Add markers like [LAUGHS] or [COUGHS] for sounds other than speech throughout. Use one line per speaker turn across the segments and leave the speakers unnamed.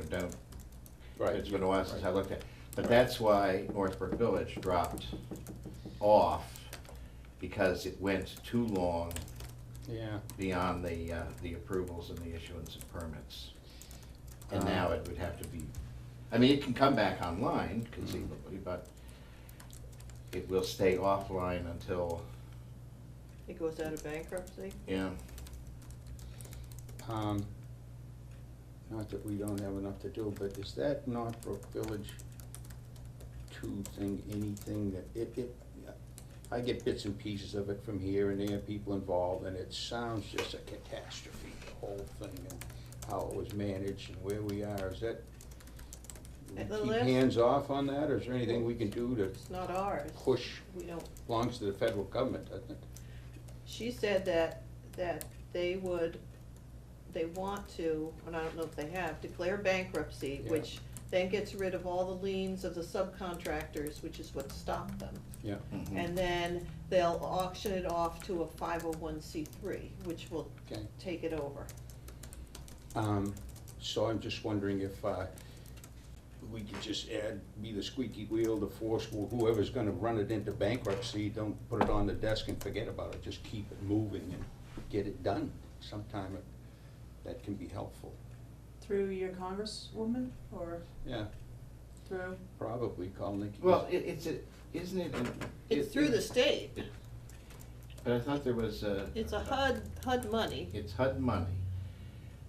it down.
Right.
It's been a while since I
Right.
looked at, it. but
Right.
that's why Northbrook Village dropped off because it went too long
Yeah,
beyond the, uh, the approvals and the issuance of permits. And
Uh.
now it would have to be, I mean, it can come back online conceivably, but it will stay offline until,
It goes out of bankruptcy?
yeah,
um, not that we don't have enough to do, but is that Northbrook Village two thing, anything that, it, it, I get bits and pieces of it from here and there, people involved, and it sounds just a catastrophe, the whole thing, and how it was managed and where we are, is that, we
At the
keep
last-
hands off on that, or is there anything we can do to
It's not ours.
push,
We don't,
belongs to the federal government, doesn't it?
she said that, that they would, they want to, and I don't know if they have, declare bankruptcy,
Yeah.
which then gets rid of all the liens of the subcontractors, which is what stopped them.
Yeah,
mhm.
And then they'll auction it off to a five oh one C three, which will
okay.
take it over.
Um, So I'm just wondering if uh, we could just add, be the squeaky wheel, the force, wh- whoever's gonna run it into bankruptcy, don't put it on the desk and forget about it, just keep it moving and get it done. Sometime it- that can be helpful.
Through your congresswoman or
Yeah,
through,
probably call Nikki.
Well, it, it's, a- isn't it? an-
It's
it-
through the
it-
state.
But I thought there was a.
It's a HUD, HUD money.
It's HUD money,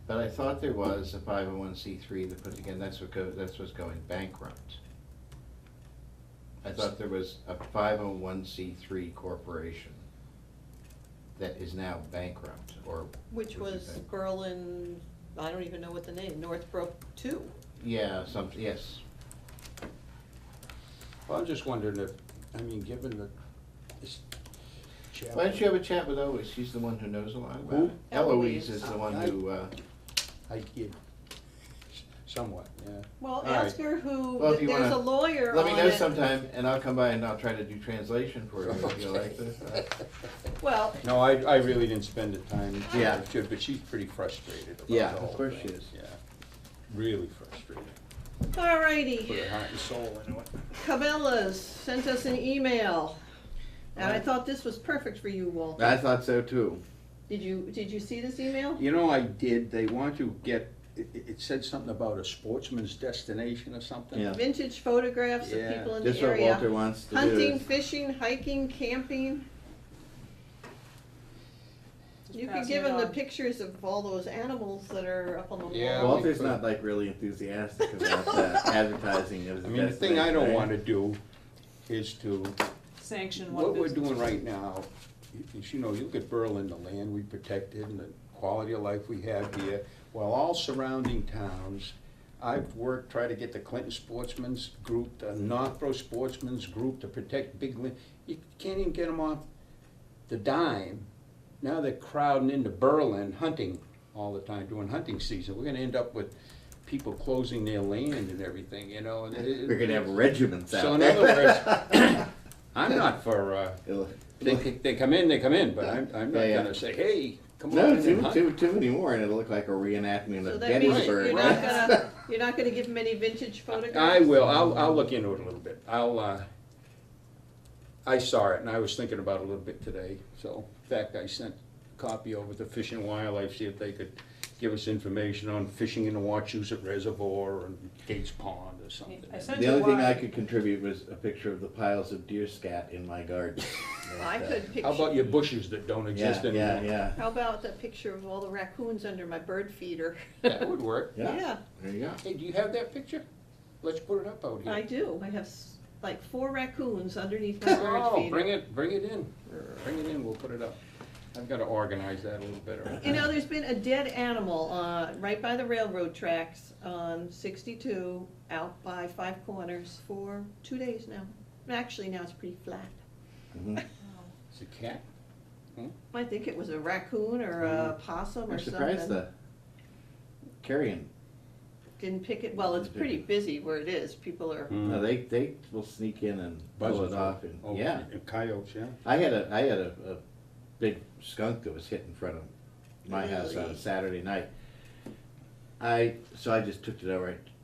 but I thought there was a five oh one C three that put together, that's what go, that's what's going bankrupt. I thought there was a five oh one C three corporation that is now bankrupt, or.
Which
would be
was
bankrupt.
Berlin, I don't even know what the name, Northbrook two.
Yeah, some, yes,
Well, I'm just wondering if, I mean, given the, this chap.
why don't you have a chat with Eloise, she's the one who knows a lot about
Who?
it. Eloise is the one
Eloise.
who, uh,
I kid, somewhat, yeah.
Well,
All right.
ask her who,
Well, if you
there's
wanna-
a lawyer
let me
on
know
it.
sometime, and I'll come by and I'll try to do translation for you if you [LAUGHS] like this.
Well,
No, I, I really didn't spend the time.
Yeah.
to- But she's pretty frustrated about
Yeah,
the
of
whole
course
thing.
she is.
Yeah, really frustrated. Put
alrighty,
her heart and soul into it.
Cabela's sent us an email, and I
Alright.
thought this was perfect for you, Walter.
I thought so too.
Did you, did you see this email?
You know, I did, they want to get, it, it- it said something about a sportsman's destination or something.
Yeah.
Vintage photographs of
Yeah.
people in the
That's what
area.
Walter wants to do.
Hunting,
is-
fishing, hiking, camping.
Just
You could
passing
give
it
him the
on.
pictures of all those animals that are up on the wall.
Yeah.
Walter's not like really
[LAUGHS]
enthusiastic about that advertising of
I
the
mean, the thing I
destination,
don't
right?
wanna do is to,
sanction one
what we're
business.
doing right now, y- is, you know, you look at Berlin, the land we protected and the quality of life we have here, while all surrounding towns, I've worked, tried to get the Clinton Sportsman's Group, the Northborough Sportsman's Group to protect big land. You can't even get them off the dime. Now they're crowding into Berlin, hunting all the time, doing hunting season. We're gonna end up with people closing their land and everything, you know, and it- it-
We're
[LAUGHS]
gonna have regiments
So
out
in
there. [COUGHS]
other words, I'm not for, uh,
[LAUGHS] It'll-
they, they come in, they come in, but I'm, I'm not
Yeah, yeah.
gonna say, hey, come on
No,
in
too,
and hunt.
too, too many more and it'll look like a reenactment
So
of
that means
Gettysburg.
you're
right?
not gonna, you're not gonna give him any vintage photographs?
I will, I'll, I'll look into it a little bit, I'll, uh, I saw it and I was thinking about it a little bit today, so, in fact, I sent a copy over to Fish and Wildlife, see if they could give us information on fishing in the Wachusett Reservoir and Gates Pond or something.
I sent
The
you
only thing I
one.
could contribute was a picture of the piles of deer scat in my
[LAUGHS]
garden.
I
But, uh,
could
How about
picture,
your bushes that don't
Yeah,
exist anymore?
yeah, yeah.
how about that picture of all the raccoons under my bird feeder?
That would work.
[LAUGHS] Yeah,
There you go.
Hey, do you have that picture? Let's put it up out here.
I do, I have s- like four raccoons underneath
[LAUGHS]
my bird
Oh, bring
feeder.
it, bring it in, bring it in, we'll put it up. I've gotta organize that a little better.
You know, there's been a dead animal, uh, right by the railroad tracks on sixty-two, out by Five Corners for two days now. Actually, now it's pretty flat.
Mhm.
It's a cat?
I think it was a raccoon or a possum or
I'm
something.
surprised the carrion,
Didn't pick it, well, it's pretty busy where it is, people are
Mm.
no,
Mm.
they, they will sneak in and pull it off and,
Oh,
yeah.
and Coyotes, yeah.
I had a, I had a, a big skunk that was hit in front of my house on
Really?
a Saturday night.
I, so I just took it over, I